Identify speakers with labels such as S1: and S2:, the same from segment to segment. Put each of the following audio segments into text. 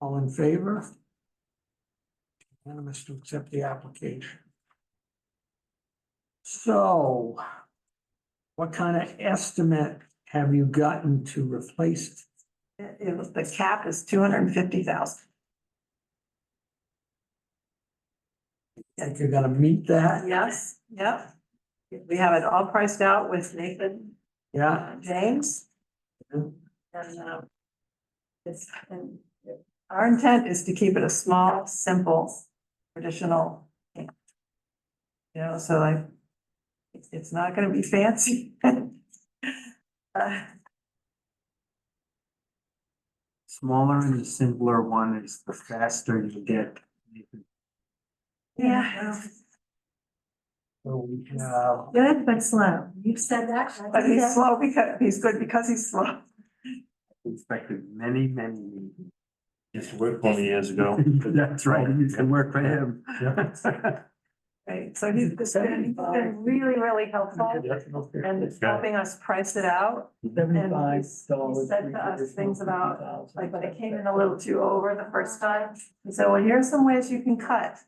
S1: All in favor? Unanimous to accept the application. So what kind of estimate have you gotten to replace it?
S2: It, it was, the cap is two hundred and fifty thousand.
S1: Think you're gonna meet that?
S2: Yes, yep. We have it all priced out with Nathan
S1: Yeah?
S2: uh, James.
S1: Yeah.
S2: And, um, it's, and our intent is to keep it a small, simple, traditional. camp. You know, so like, it's, it's not gonna be fancy. Uh,
S3: Smaller and simpler one is the faster you get.
S2: Yeah,
S1: So we have,
S4: Good, but slow. You've said that. and I
S2: but
S4: think
S2: he's
S4: that's-
S2: slow because, he's good because he's slow.
S3: Inspected many, many meetings.
S5: Used to work twenty years ago.
S3: That's right, you can work for him.
S2: Right, so he's he's been he's been really, really helpful and it's helping us price it out.
S1: Seventy-five
S2: he
S1: dollars.
S2: said to us things about, Like, but it came in a little too over the first time. He said, well, here's some ways you can cut.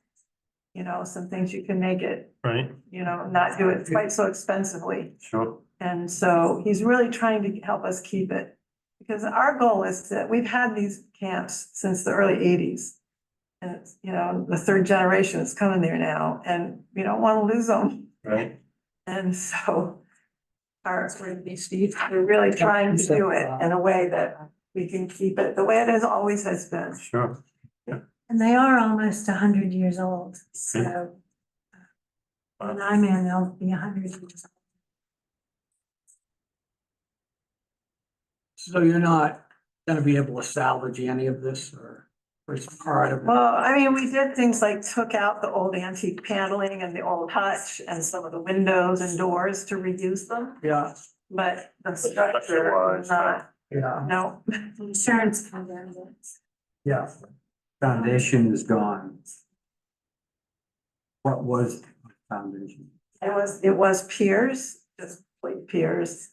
S2: You know, some things you can make it,
S5: Right,
S2: you know, not do it quite so expensively.
S5: sure.
S2: And so he's really trying to help us keep it. Because our goal is that we've had these camps since the early eighties. And it's, you know, the third generation is coming there now and we don't want to lose them.
S5: Right.
S2: And so our, we're really trying to do it in a way that we can keep it the way it has always has been.
S5: Sure.
S4: And they are almost a hundred years old, so.
S5: Wow.
S4: When I'm in, they'll be a hundred years.
S1: So you're not gonna be able to salvage any of this or, or it's part of it?
S2: Well, I mean, we did things like took out the old antique paneling and the old hutch and some of the windows and doors to reuse them.
S1: Yeah,
S2: But the structure was
S5: Structure-wise,
S2: not,
S1: yeah,
S2: no,
S4: old. Insurance covered it.
S1: yeah.
S3: Foundation is gone. What was the foundation?
S2: it was, it was piers, just plain piers.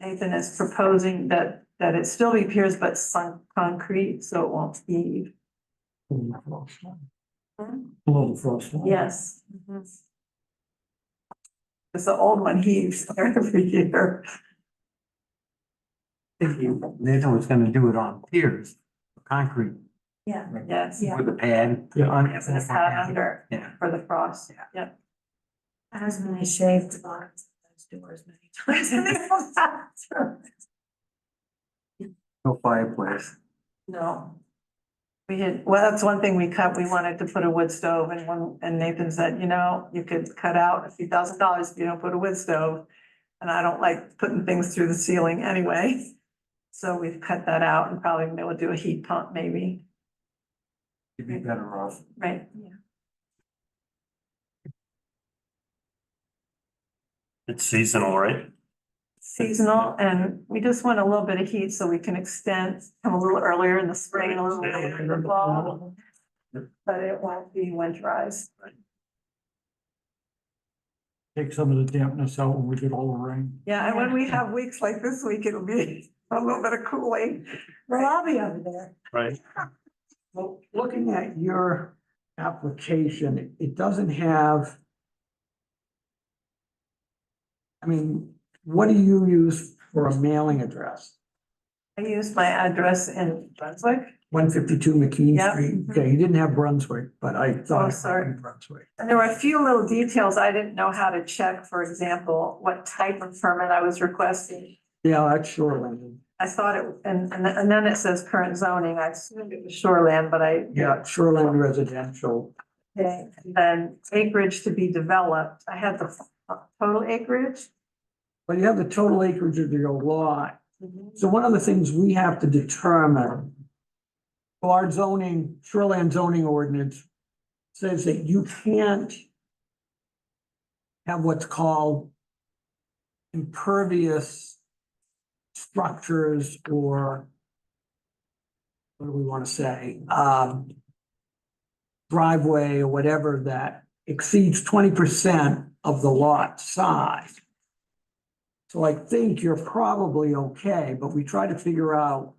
S2: Nathan is proposing that, that it still be piers, but sunk concrete, so it won't heave.
S1: Below the frost line.
S2: Mm-hmm. Yes. Cause the old one heaves every year.
S3: If you, Nathan was gonna do it on piers, concrete
S4: Yeah,
S2: Yes.
S4: Yeah.
S3: with a pad.
S1: Yeah.
S3: on-
S2: Yes, and it's hot under
S3: Yeah.
S2: for the frost.
S3: Yeah.
S2: Yep.
S4: my husband has shaved the bottoms of those doors many times.
S3: No fireplace.
S2: No. We had, well, that's one thing we cut. We wanted to put a wood stove and one, and Nathan said, you know, you could cut out a few thousand dollars if you don't put a wood stove. And I don't like putting things through the ceiling anyway. So we've cut that out and probably be able to do a heat pump maybe,
S3: You'd be better off.
S2: right?
S5: It's seasonal, right?
S2: Seasonal and we just want a little bit of heat so we can extend, come a little earlier in the spring, a little later in the fall. But it won't be winterized.
S1: Take some of the dampness out when we get all the rain.
S2: Yeah, and when we have weeks like this week, it'll be a little bit of cooling.
S4: Well, I'll be over there.
S5: Right.
S1: Well, looking at your application, it doesn't have. I mean, what do you use for a mailing address?
S2: I used my address in Brunswick.
S1: One fifty-two McKean
S2: Yeah.
S1: Street, okay, you didn't have Brunswick, but I thought.
S2: mm-hmm. Oh,
S1: it might
S2: sorry.
S1: be Brunswick,
S2: And there were a few little details I didn't know how to check, for example, what type of permit I was requesting.
S1: yeah, that's shoreline,
S2: I thought it, and, and and then it says current zoning. I assumed it was shoreland, but I.
S1: yeah, shoreline residential,
S2: Okay, and then acreage to be developed. I had the total acreage.
S1: but you have the total acreage of your lot. So one of the things we have to determine. well, Our zoning, shoreland zoning ordinance says that you can't. Have what's called. Impervious. Structures or. What do we want to say? Um. Driveway or whatever that exceeds twenty percent of the lot size. So I think you're probably okay, but we try to figure out